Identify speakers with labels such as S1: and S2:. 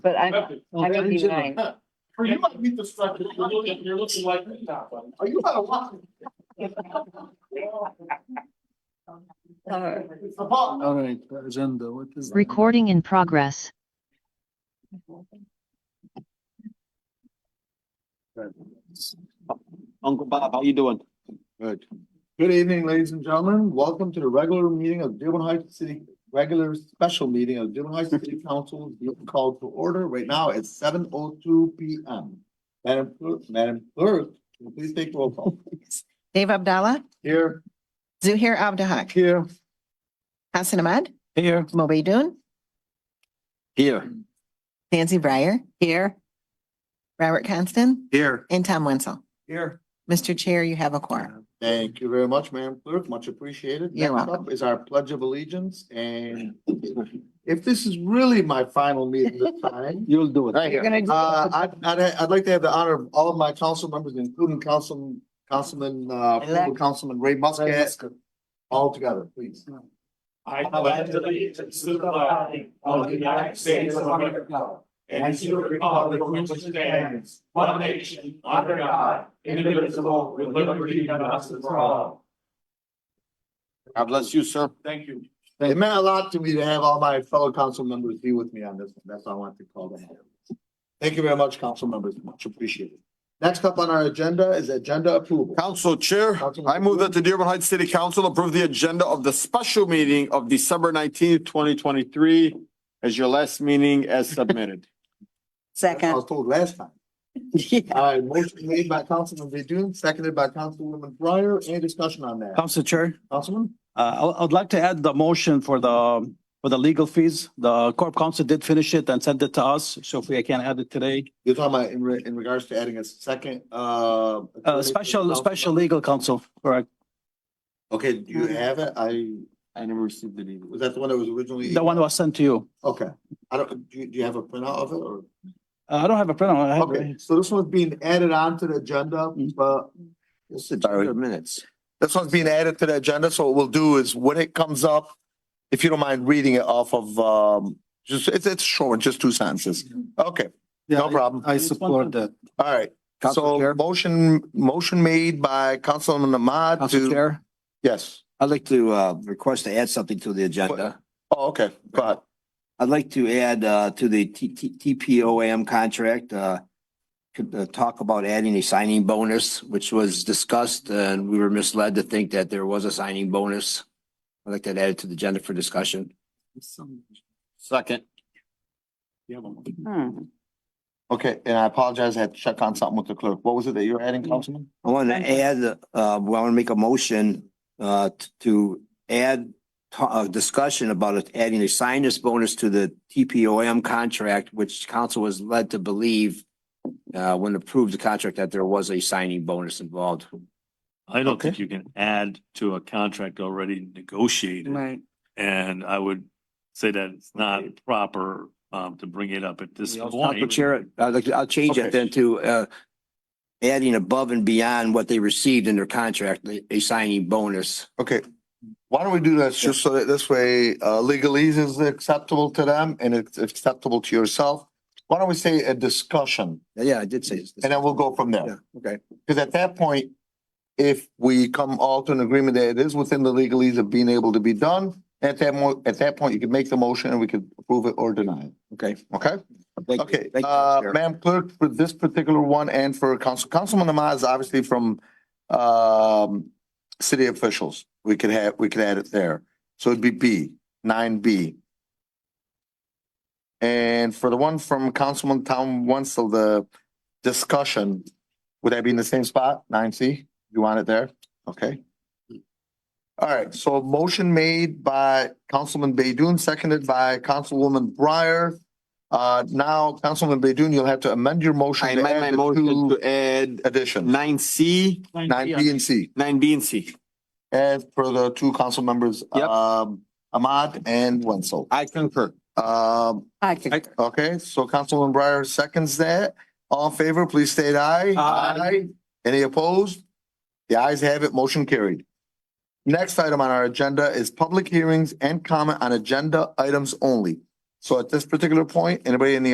S1: But I, I
S2: Well,
S1: would be
S2: Angela,
S1: nine.
S3: For uh, you, I meet the structure, you're looking, you're looking like me now, buddy. Are you out of luck?
S1: Uh,
S3: It's the ball.
S2: All right, the agenda, what is?
S4: Recording in progress.
S5: Uncle Bob, how you doing?
S2: Good. Good evening, ladies and gentlemen. Welcome to the regular meeting of Dearborn Heights City, regular special meeting of Dearborn Heights City Council called to order right now at seven oh two P M. Madam, Clerk- Madam Clerk, please take roll call.
S6: Dave Abdallah,
S2: Here.
S6: Zuhair Abdahak,
S2: Here.
S6: Hassan Ahmad,
S5: Here.
S6: Moby Dun,
S5: Here.
S6: Nancy Breyer. Here. Robert Constant
S5: Here.
S6: and Tom Wenzel.
S2: Here.
S6: Mr. Chair, you have a quorum.
S2: Thank you very much, Madam Clerk, much appreciated.
S6: You're
S2: Next
S6: welcome.
S2: up Is our pledge of allegiance and if this is really my final meeting this time.
S5: You'll do it.
S2: Right here. Uh, I'd, I'd, I'd like to have the honor of all of my council members, including Councilman, Councilman, uh, former Councilman Ray Muscat. All together, please.
S3: I pledge allegiance to the flag of the United States of America and to the republic for which it stands, one nation, under God, indivisible, with liberty and justice for all.
S5: God bless you, sir.
S3: Thank you.
S2: It meant a lot to me to have all my fellow council members be with me on this. one. That's all I wanted to call them. Thank you very much, council members. Much appreciated. Next up on our agenda is agenda approval.
S7: Council Chair, I move that the Dearborn Heights City Council approve the agenda of the special meeting of December nineteenth, twenty twenty-three as your last meeting as submitted.
S2: That's what I was told last time. All right, motion made by Councilman Bedun, seconded by Councilwoman Breyer. Any discussion on that?
S8: Council Chair,
S2: Councilman?
S8: uh, I, I'd like to add the motion for the, for the legal fees. The Corp Council did finish it and sent it to us, so if we can add it today.
S2: You're talking about in re- in regards to adding a second, uh. attorney for
S8: Uh,
S2: the
S8: special,
S2: council?
S8: special legal counsel, correct?
S2: Okay, do you have it? I,
S5: I never received it either.
S2: was that the one that was originally?
S8: The one was sent to you.
S2: Okay, I don't, do you, do you have a printout of it or?
S8: Uh, I don't have a printout. I have-
S2: Okay, so this one's being added on to the agenda, but. This agenda-
S5: minutes.
S2: this one's being added to the agenda, so what we'll do is when it comes up, if you don't mind reading it off of, um, just, it's, it's short, just two sentences. Okay, no problem.
S8: I support
S7: that.
S2: All right,
S7: Council
S2: so
S7: Chair,
S2: motion, motion made by Councilman Ahmad
S8: Council
S2: to,
S8: Chair,
S2: yes.
S7: I'd like to uh request to add something to the agenda.
S2: Oh, okay, go ahead.
S7: I'd like to add uh to the T T TPOAM contract, uh. Could uh, talk about adding a signing bonus, which was discussed, and we were misled to think that there was a signing bonus. I'd like that added to the agenda for discussion.
S5: Second.
S1: hmm.
S2: Okay, and I apologize, I had to check on something with the clerk. What was it that you were adding,
S8: Mm-hmm.
S2: Councilman?
S7: I want to add, uh, well, I want to make a motion, uh, t- to add uh, a discussion about it, adding a sinus bonus to the TPOM contract, which council was led to believe, uh, when approved the contract, that there was a signing bonus involved.
S9: I don't think you can add to a contract already negotiated.
S1: right.
S9: And I would say that it's not proper um to bring it up at this
S7: Council
S9: point.
S7: Chair, I'd like, to- I'll change that then to, uh, adding above and beyond what they received in their contract, a- a signing bonus.
S2: Okay, why don't we do this, just so that this way, uh, legalese is acceptable to them and it's acceptable to yourself? Why don't we say a discussion,
S7: Yeah, I did say. this.
S2: and then we'll go from there?
S7: Yeah, okay.
S2: Because at that point, if we come all to an agreement that it is within the legalese of being able to be done, at that mo, at that point, you can make the motion and we could approve it or deny it,
S7: Okay.
S2: okay?
S7: Thank you.
S2: Okay,
S7: Thank you,
S2: uh,
S7: Chair.
S2: Madam Clerk, for this particular one and for Council, Councilman Ahmad is obviously from, um, city officials. We could have, we could add it there. So it'd be B, nine B. And for the one from Councilman Tom Wenzel, the discussion, would that be in the same spot, nine C? You want it there? Okay. All right, so motion made by Councilman Baydun, seconded by Councilwoman Breyer. Uh, now, Councilman Baydun, you'll have to amend your motion.
S5: I
S2: to
S5: amend
S2: add
S5: my
S2: the
S5: motion
S2: two
S5: to add
S2: Additions,
S5: nine C,
S2: nine B and C,
S5: nine B and C.
S2: as per the two council members,
S5: Yep.
S2: um, Ahmad and Wenzel.
S5: I concur.
S2: Um,
S1: I could,
S2: okay, so Councilman Breyer seconds that. All in favor, please state aye.
S8: Aye.
S2: Any opposed? The ayes have it, motion carried. Next item on our agenda is public hearings and comment on agenda items only. So at this particular point, anybody in the